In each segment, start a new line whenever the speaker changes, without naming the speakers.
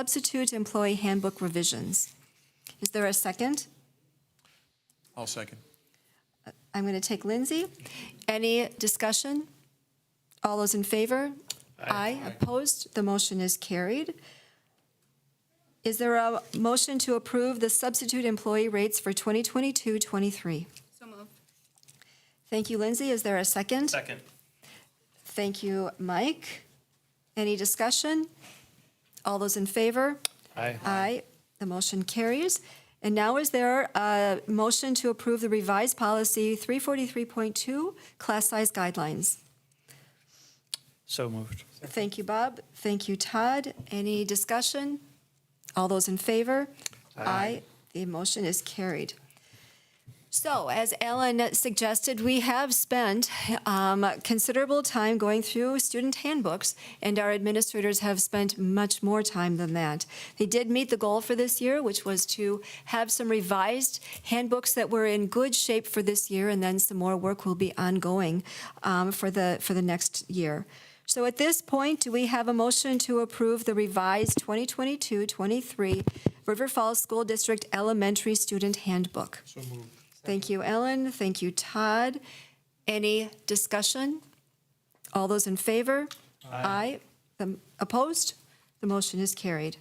substitute employee handbook revisions. Is there a second?
I'll second.
I'm going to take Lindsay. Any discussion? All those in favor? Aye. Opposed? The motion is carried. Is there a motion to approve the substitute employee rates for 2022-23?
So moved.
Thank you, Lindsay. Is there a second?
Second.
Thank you, Mike. Any discussion? All those in favor?
Aye.
Aye. The motion carries. And now is there a motion to approve the revised policy 343.2, class size guidelines?
So moved.
Thank you, Bob. Thank you, Todd. Any discussion? All those in favor? Aye. The motion is carried. So as Ellen suggested, we have spent um, considerable time going through student handbooks, and our administrators have spent much more time than that. They did meet the goal for this year, which was to have some revised handbooks that were in good shape for this year, and then some more work will be ongoing um, for the, for the next year. So at this point, do we have a motion to approve the revised 2022-23 River Falls School District Elementary Student Handbook? Thank you, Ellen. Thank you, Todd. Any discussion? All those in favor? Aye. The- Opposed? The motion is carried.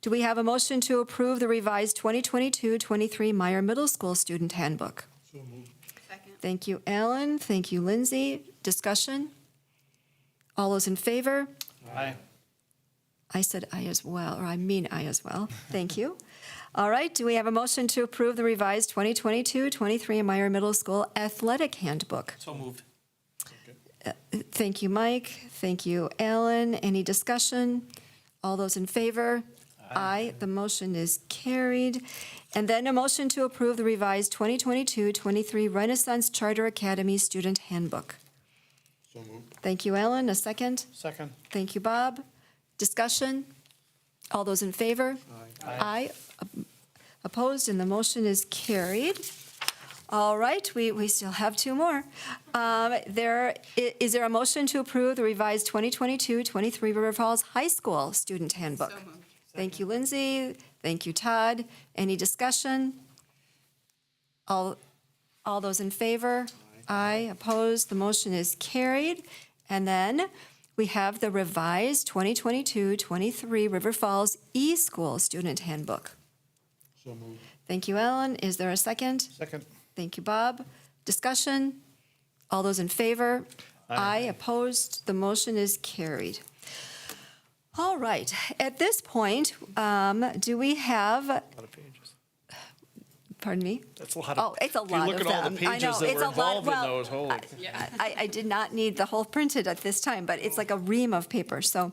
Do we have a motion to approve the revised 2022-23 Meyer Middle School Student Handbook?
Second.
Thank you, Ellen. Thank you, Lindsay. Discussion? All those in favor?
Aye.
I said I as well, or I mean I as well. Thank you. All right, do we have a motion to approve the revised 2022-23 Meyer Middle School Athletic Handbook?
So moved.
Thank you, Mike. Thank you, Alan. Any discussion? All those in favor? Aye. The motion is carried. And then a motion to approve the revised 2022-23 Renaissance Charter Academy Student Handbook. Thank you, Alan. A second?
Second.
Thank you, Bob. Discussion? All those in favor? Aye. Op- Opposed, and the motion is carried. All right, we, we still have two more. Um, There, i- is there a motion to approve the revised 2022-23 River Falls High School Student Handbook?
So moved.
Thank you, Lindsay. Thank you, Todd. Any discussion? All, all those in favor? Aye. Opposed? The motion is carried. And then we have the revised 2022-23 River Falls E-School Student Handbook.
So moved.
Thank you, Ellen. Is there a second?
Second.
Thank you, Bob. Discussion? All those in favor? Aye. Opposed? The motion is carried. All right. At this point, um, do we have,
A lot of pages.
pardon me?
That's a lot
Oh,
of.
it's a
if
lot
You look
of
at all the
them. I know,
pages that
it's
were
a lot-
involved in
well,
those, holy.
I, I did not need the whole printed at this time, but it's like a ream of paper, so.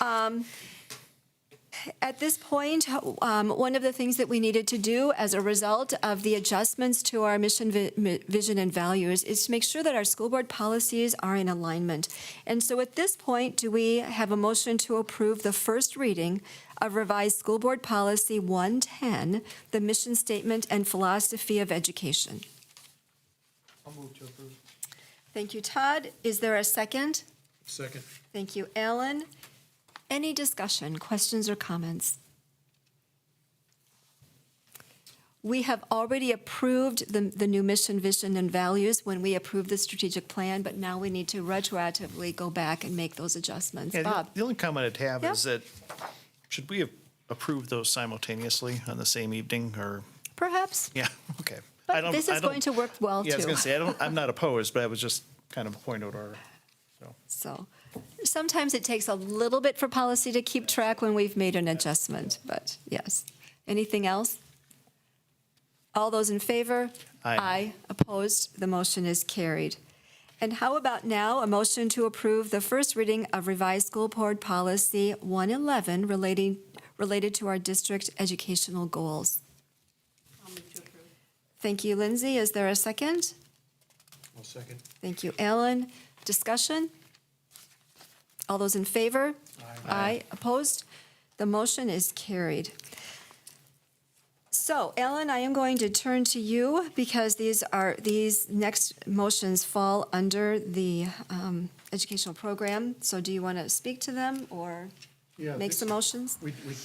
um, At this point, um, one of the things that we needed to do as a result of the adjustments to our mission, vi- mi- vision, and values is to make sure that our school board policies are in alignment. And so at this point, do we have a motion to approve the first reading of revised school board policy 110, the mission statement and philosophy of education? Thank you, Todd. Is there a second?
Second.
Thank you, Alan. Any discussion, questions, or comments? We have already approved the, the new mission, vision, and values when we approved the strategic plan, but now we need to retroactively go back and make those adjustments.
Yeah, the-
Bob?
The only comment I'd have
Yeah.
is that, should we have approved those simultaneously on the same evening, or,
Perhaps?
yeah, okay.
But
I don't-
this
I
is
don't-
going to work well,
Yeah, I was
too.
gonna say, I don't, I'm not opposed, but I was just kind of a point of order.
So sometimes it takes a little bit for policy to keep track when we've made an adjustment, but yes. Anything else? All those in favor?
Aye.
Opposed? The motion is carried. And how about now, a motion to approve the first reading of revised school board policy 111 relating, related to our district educational goals?
I'll move to approve.
Thank you, Lindsay. Is there a second?
I'll second.
Thank you, Alan. Discussion? All those in favor? Aye. Opposed? The motion is carried. So, Ellen, I am going to turn to you because these are, these next motions fall under the um, educational program. So do you want to speak to them or
Yeah,
make
this-
some motions?
We, we